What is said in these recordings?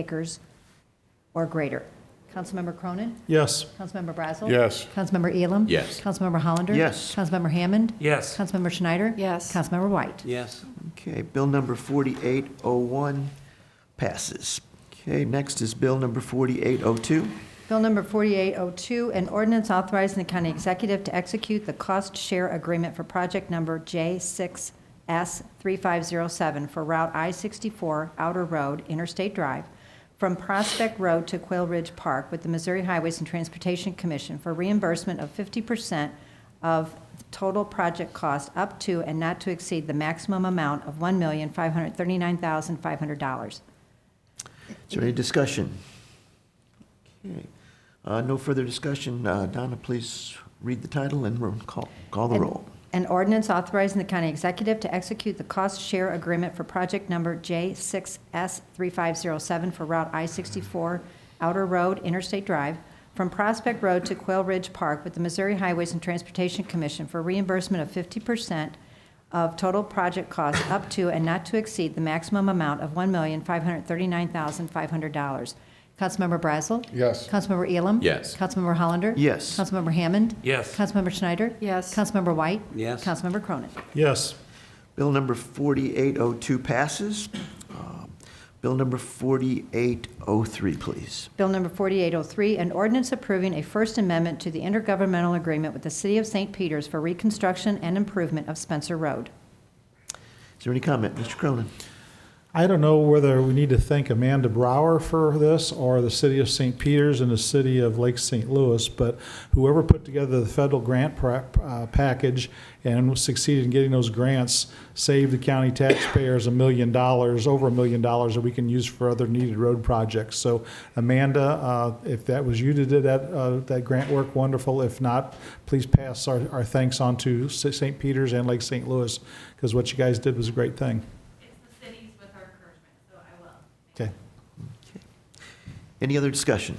acres or greater. Councilmember Cronin? Yes. Councilmember Brazel? Yes. Councilmember Elam? Yes. Councilmember Hollander? Yes. Councilmember Hammond? Yes. Councilmember Schneider? Yes. Councilmember White? Yes. Okay, bill number 4801 passes. Okay, next is bill number 4802. Bill number 4802, an ordinance authorizing the county executive to execute the cost share agreement for project number J6S3507 for Route I-64 Outer Road Interstate Drive from Prospect Road to Quail Ridge Park with the Missouri Highways and Transportation Commission for reimbursement of 50% of total project cost up to and not to exceed the maximum amount of $1,539,500. Is there any discussion? Okay, uh, no further discussion. Uh, Donna, please read the title and roll- call, call the An- roll. An ordinance authorizing the county executive to execute the cost share agreement for project number J6S3507 for Route I-64 Outer Road Interstate Drive from Prospect Road to Quail Ridge Park with the Missouri Highways and Transportation Commission for reimbursement of 50% of total project cost up to and not to exceed the maximum amount of $1,539,500. Councilmember Brazel? Yes. Councilmember Elam? Yes. Councilmember Hollander? Yes. Councilmember Hammond? Yes. Councilmember Schneider? Yes. Councilmember White? Yes. Councilmember Cronin? Yes. Bill number 4802 passes. Uh, Bill number 4803, please. Bill number 4803, an ordinance approving a First Amendment to the intergovernmental agreement with the City of St. Peters for reconstruction and improvement of Spencer Road. Is there any comment, Mr. Cronin? I don't know whether we need to thank Amanda Brower for this or the city of St. Peters and the city of Lake St. Louis, but whoever put together the federal grant pra- uh, package and succeeded in getting those grants saved the county taxpayers a million dollars, over a million dollars that we can use for other needed road projects. So Amanda, uh, if that was you that did that, uh, that grant work, wonderful. If not, please pass our, our thanks on to St. Peters and Lake St. Louis because what you guys did was a great thing. It's the cities with our encouragement, so I will. Okay. Any other discussion?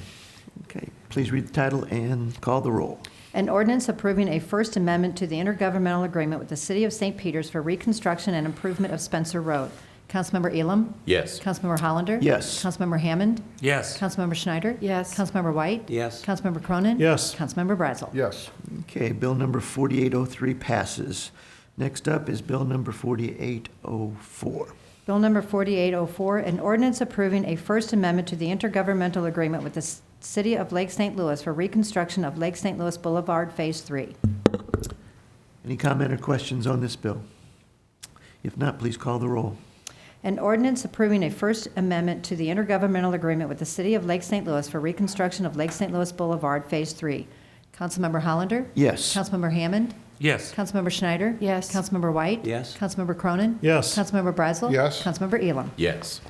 Okay, please read the title and call the roll. An ordinance approving a First Amendment to the intergovernmental agreement with the City of St. Peters for reconstruction and improvement of Spencer Road. Councilmember Elam? Yes. Councilmember Hollander? Yes. Councilmember Hammond? Yes. Councilmember Schneider? Yes. Councilmember White? Yes. Councilmember Cronin? Yes. Councilmember Brazel? Yes. Okay, bill number 4803 passes. Next up is bill number 4804. Bill number 4804, an ordinance approving a First Amendment to the intergovernmental agreement with the S- City of Lake St. Louis for reconstruction of Lake St. Louis Boulevard Phase 3. Any comment or questions on this bill? If not, please call the roll. An ordinance approving a First Amendment to the intergovernmental agreement with the City of Lake St. Louis for reconstruction of Lake St. Louis Boulevard Phase 3. Councilmember Hollander? Yes. Councilmember Hammond? Yes. Councilmember Schneider? Yes. Councilmember White? Yes. Councilmember Cronin? Yes. Councilmember Brazel? Yes. Councilmember Elam? Yes.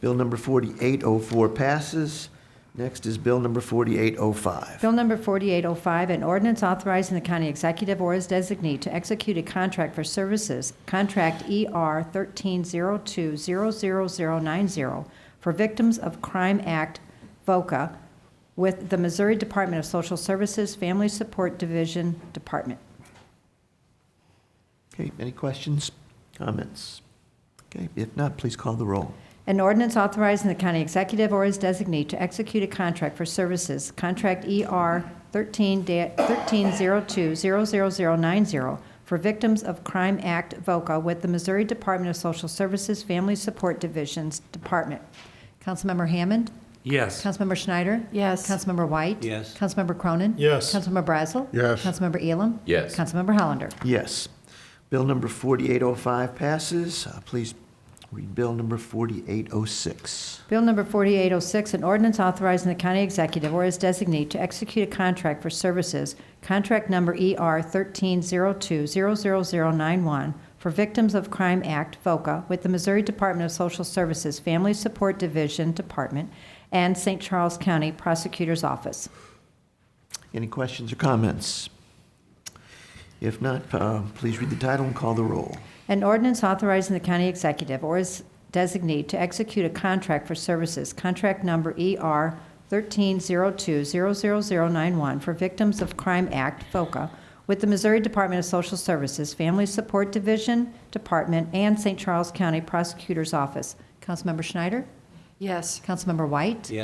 Bill number 4804 passes. Next is bill number 4805. Bill number 4805, an ordinance authorizing the county executive or his designee to execute a contract for services, contract ER 130200090, for Victims of Crime Act, VOCA, with the Missouri Department of Social Services Family Support Division Department. Okay, any questions, comments? Okay, if not, please call the roll. An ordinance authorizing the county executive or his designee to execute a contract for services, contract ER 13020090, for Victims of Crime Act VOCA with the Missouri Department of Social Services Family Support Divisions Department. Councilmember Hammond? Yes. Councilmember Schneider? Yes. Councilmember White? Yes. Councilmember Cronin? Yes. Councilmember Brazel? Yes. Councilmember Elam? Yes. Councilmember Hollander? Yes. Bill number 4805 passes. Uh, Please read bill number 4806. Bill number 4806, an ordinance authorizing the county executive or his designee to execute a contract for services, contract number ER 130200091, for Victims of Crime Act, VOCA, with the Missouri Department of Social Services Family Support Division Department and St. Charles County Prosecutor's Office. Any questions or comments? If not, uh, please read the title and call the roll. An ordinance authorizing the county executive or his designee to execute a contract for services, contract number ER 130200091 for Victims of Crime Act, FOCA, with the Missouri Department of Social Services Family Support Division, Department, and St. Charles County Prosecutor's Office. Councilmember Schneider? Yes. Councilmember White? Yes.